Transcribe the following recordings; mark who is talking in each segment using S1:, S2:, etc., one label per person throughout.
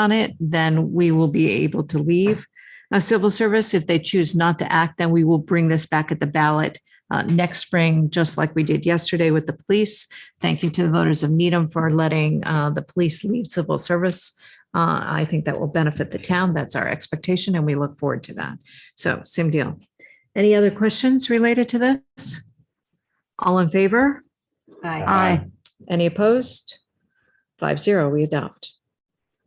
S1: on it, then we will be able to leave uh, civil service. If they choose not to act, then we will bring this back at the ballot uh, next spring, just like we did yesterday with the police. Thank you to the voters of Needham for letting uh, the police leave civil service. Uh, I think that will benefit the town. That's our expectation, and we look forward to that. So same deal. Any other questions related to this? All in favor?
S2: Aye.
S1: Any opposed? Five zero, we adopt.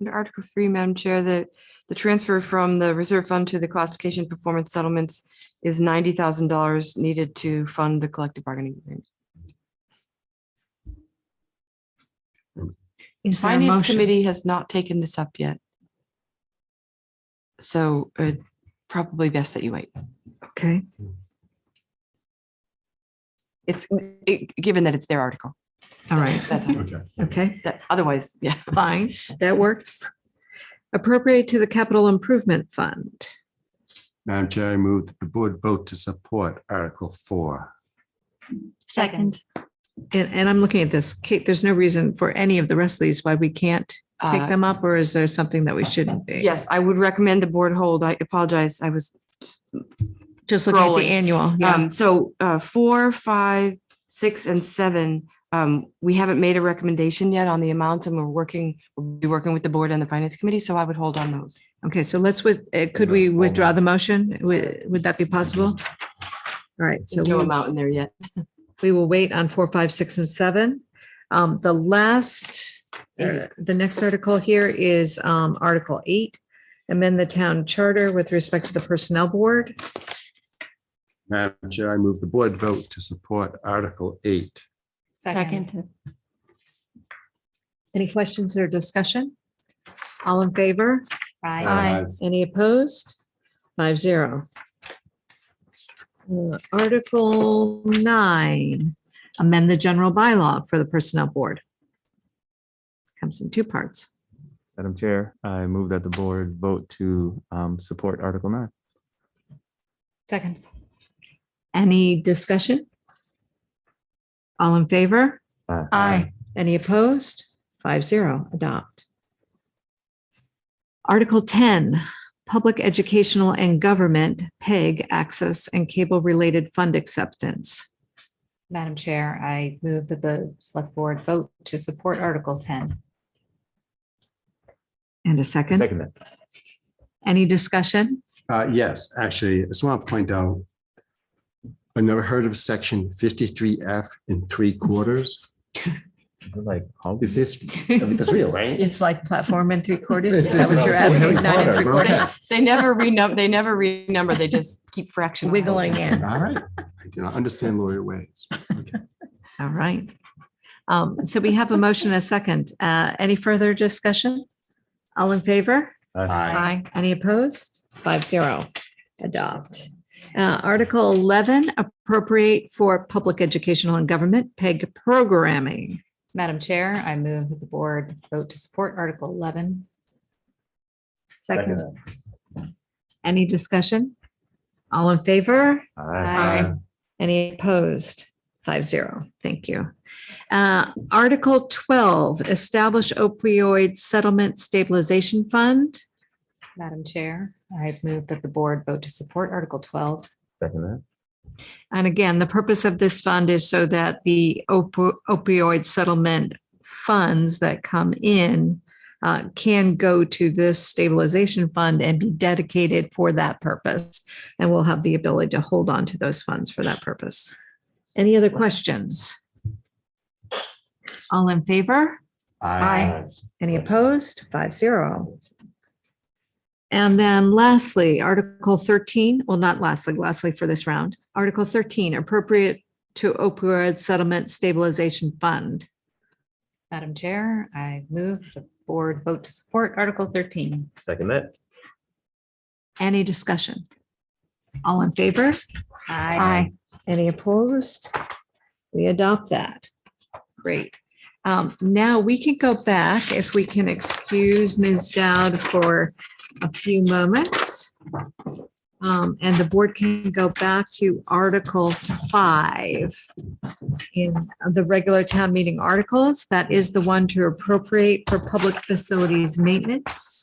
S3: Under Article Three, Madam Chair, the, the transfer from the reserve fund to the classification performance settlements is ninety thousand dollars needed to fund the collective bargaining agreement.
S1: Is there a
S3: Finance
S1: motion?
S3: Committee has not taken this up yet. So uh, probably best that you wait.
S1: Okay,
S3: It's, it- given that it's their article.
S1: all right,
S3: That's,
S2: Okay.
S1: okay,
S3: that, otherwise, yeah.
S1: fine, that works. Appropriate to the capital improvement fund.
S2: Madam Chair, I move that the board vote to support Article Four.
S4: Second.
S1: And, and I'm looking at this, Kate, there's no reason for any of the rest of these why we can't take
S3: Uh,
S1: them up, or is there something that we eh, shouldn't be?
S3: Yes, I would recommend the board hold. I apologize. I was just
S1: Just looking at
S3: Scrolling.
S1: the annual, yeah,
S3: Um, so, uh, four, five, six, and seven, um, we haven't made a recommendation yet on the amounts and we're working, we'll be working with the board and the finance committee, so I would hold on those.
S1: okay, so let's, with- uh, could we withdraw the motion? Would, would that be possible? All right, so.
S3: There's no
S1: we'll-
S3: amount in there yet.
S1: We will wait on four, five, six, and seven. Um, the last,
S3: Eight.
S1: uh, the next article here is, um, Article eight. Amend the town charter with respect to the personnel board.
S2: Madam Chair, I move the board vote to support Article Eight.
S4: Second.
S1: Any questions or discussion? All in favor?
S2: Aye.
S1: Any opposed? Five zero. Uh, Article nine, amend the general bylaw for the personnel board. Comes in two parts.
S5: Madam Chair, I move that the board vote to um, support Article nine.
S4: Second.
S1: Any discussion? All in favor?
S4: Aye.
S1: Any opposed? Five zero, adopt. Article 10, Public Educational and Government, PEG, Access and Cable-Related Fund Acceptance.
S4: Madam Chair, I move that the select board vote to support Article ten.
S1: And a second,
S5: Second that.
S1: any discussion?
S2: Uh, yes, actually, I just want to point out, I never heard of section fifty-three F in three quarters.
S5: Is it Like, how-
S2: Is this, I mean, that's real, right?
S1: It's like platform and three quarters.
S2: This
S1: Is that
S2: is-
S1: what you're
S2: this is
S1: asking?
S2: Harry
S1: Nine and three
S2: Potter,
S1: quarters?
S2: okay.
S3: They never renumber, they never renumber, they just keep fractionalizing.
S1: Wiggling in.
S2: All right, I do not understand lawyer ways.
S1: All right. Um, So we have a motion, and a second. Uh, Any further discussion? All in favor?
S2: Aye.
S1: Aye. Any opposed? Five zero. Adopt. Uh, Article eleven, appropriate for public educational and government PEG programming.
S4: Madam Chair, I move that the board vote to support Article eleven.
S1: Second. Any discussion? All in favor?
S4: Aye.
S1: Any opposed? Five zero. Thank you. Uh, Article twelve, establish opioid settlement stabilization fund.
S4: Madam Chair, I move that the board vote to support Article twelve.
S5: Second that.
S1: And again, the purpose of this fund is so that the opo- opioid settlement funds that come in uh, can go to this stabilization fund and be dedicated for that purpose. And we'll have the ability to hold on to those funds for that purpose. Any other questions? All in favor?
S4: Aye.
S1: Any opposed? Five zero. And then lastly, Article thirteen, well, not lastly, lastly for this round, Article thirteen, appropriate to opioid settlement stabilization fund.
S4: Madam Chair, I move the board vote to support Article thirteen.
S5: Second that.
S1: Any discussion? All in favor?
S4: Aye.
S1: Any opposed? We adopt that. Great. Um, now we can go back if we can excuse Ms. Dowd for a few moments. Um, and the board can go back to Article Five in the regular town meeting articles. That is the one to appropriate for public facilities maintenance.